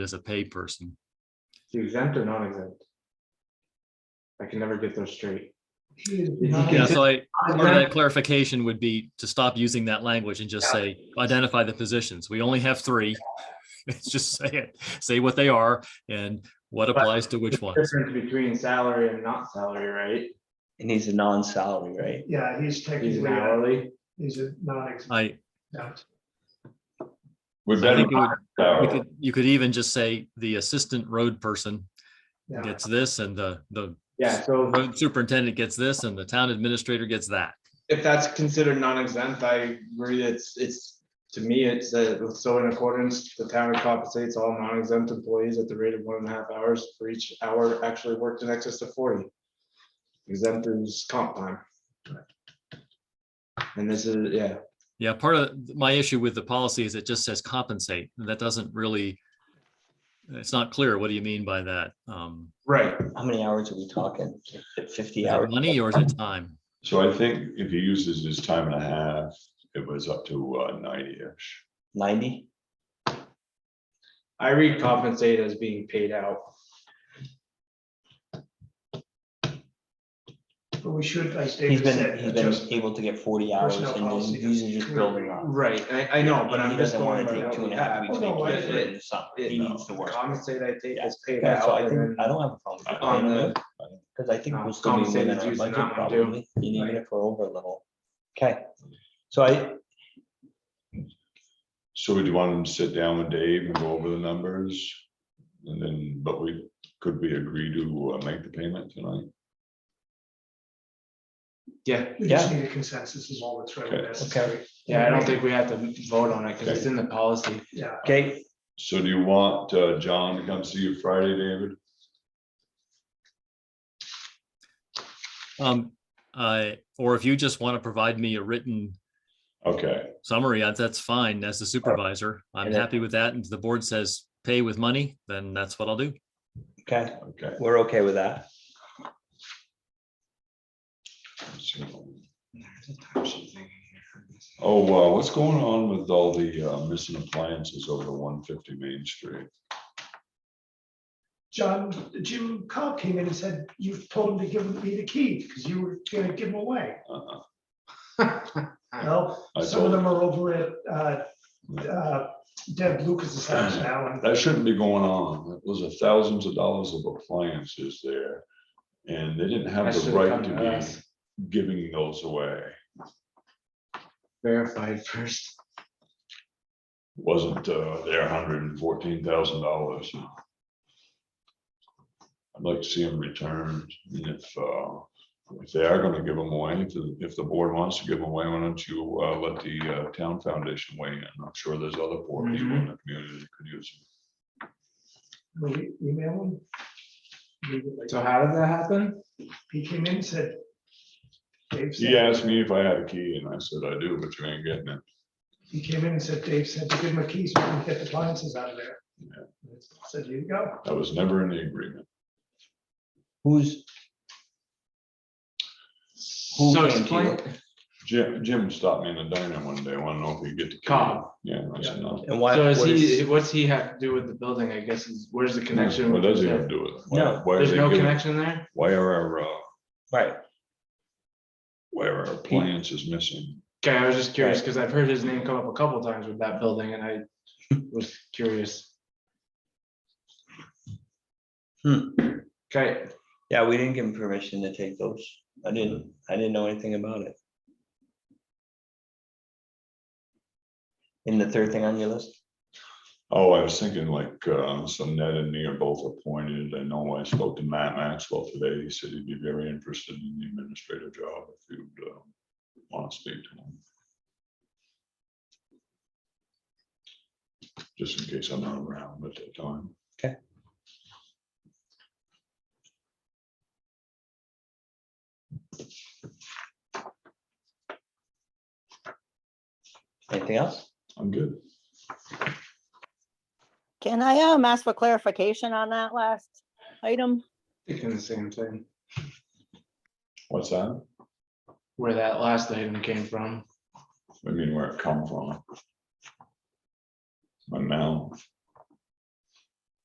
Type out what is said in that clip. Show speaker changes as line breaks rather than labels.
as a paid person.
You exempt or non-exempt? I can never get those straight.
Yeah, so I, part of that clarification would be to stop using that language and just say, identify the positions. We only have three. It's Just say it, say what they are and what applies to which ones.
Difference between salary and not salary, right?
And he's a non-salary, right?
Yeah, he's
He's an
technically, a-
hourly.
he's a non-exempt.
I,
We
I
better
think it would,
not
we
salary.
could, you could even just say the assistant road person
Yeah.
gets this and the, the
Yeah, so
road superintendent gets this and the town administrator gets that.
if that's considered non-exempt, I agree, it's, it's, to me, it's, uh, so in accordance, the town compensates all non-exempt employees at the rate of one and a half hours for each hour actually worked in excess of forty. Exempt is comp time. And this is, yeah,
Yeah, part of my issue with the policy is it just says compensate. and That doesn't really, it's not clear. What do you mean by that? Um,
right,
How many hours are we talking? Fifty
is it
hours?
money or is it time?
So I think if he uses his time and a half, it was up to uh, ninety-ish.
Ninety?
I read compensate as being paid out.
But we should, as
He's
David
been,
said,
he's
adjust,
been able to get forty hours and
Personnel
then
policy
he's just
doesn't-
building up.
Right, I, I know, but
He
I'm just
doesn't
going
wanna
by
take
what
two
we
and a half
have.
weeks
Oh, no, I-
vacation
it-
and stuff.
it-
He needs to
the
work.
Compensate, I think,
Yeah.
is paid
Yeah, so
out
I
and
think, I
then
don't have a problem with
on
that.
the,
Because I think
No,
we'll still be
compensated
within our
using
budget
that one too.
probably, and even if we're over a little. Okay, so I,
So would you want him to sit down with Dave and go over the numbers? And then, but we, could we agree to uh, make the payment tonight?
yeah,
we just need a consensus is all that's really
Okay.
necessary.
yeah, I don't think we have to vote on it because it's in the policy.
Yeah,
okay,
So do you want uh, John to come see you Friday, David?
Um, I, or if you just want to provide me a written
Okay,
summary, uh, that's fine. As the supervisor, I'm
And then-
happy with that. And if the board says pay with money, then that's what I'll do.
okay,
okay.
we're okay with that.
So- Oh, wow, what's going on with all the uh, missing appliances over the one fifty Main Street?
John, Jim Cobb came in and said, you've told him to give me the key, because you were gonna give them away.
Uh,
Well,
I
some of them
told,
are over at, uh, uh, Deb Lucas's house now, and
that shouldn't be going on. It was a thousands of dollars of appliances there. And they didn't
That
have the
should've
right
come to
to
us.
be giving those away.
Verified first.
Wasn't uh, their hundred and fourteen thousand dollars. I'd like to see them returned. And if, uh, if they are gonna give them away, if, the- if the board wants to give them away, why don't you uh, let the uh, town foundation weigh in? I'm sure there's other poor
Mm-hmm.
people in the community that could use them.
we emailed him.
So how did that happen?
He came in and said. Dave said-
He asked me if I had a key and I said, I do, but you ain't getting it.
He came in and said, Dave said, to give him a key so we can get the appliances out of there. I Said, here you go.
That was never in the agreement.
Who's, Who
So
came to
explain,
Jim, Jim stopped me in the diner one day, wanted to know if he could get the key.
Cobb.
Yeah, and I said, no.
and why?
so is
what
he, what's he have to do with the building, I guess, is, where's the connection?
What
with
does he
the-
have to do with it? Why-
No,
why are
There's
they
no
giving-
connection there?
Why are our, uh,
Right,
why are our appliances missing?
Okay, I was just curious because I've heard his name come up a couple times with that building and I was curious.
Hmm.
Okay,
yeah, we didn't give him permission to take those. I didn't, I didn't know anything about it. And the third thing on your list?
Oh, I was thinking like, um, so Ned and me are both appointed. I know I spoke to Matt Maxwell today. He said he'd be very interested in the administrative job if you'd, uh, want to speak to him. Just in case I'm not around at that time.
Anything else?
I'm good.
Can I um ask for clarification on that last item?
thinking the same thing,
What's that?
where that last item came from.
I mean, where it come from. My mouth.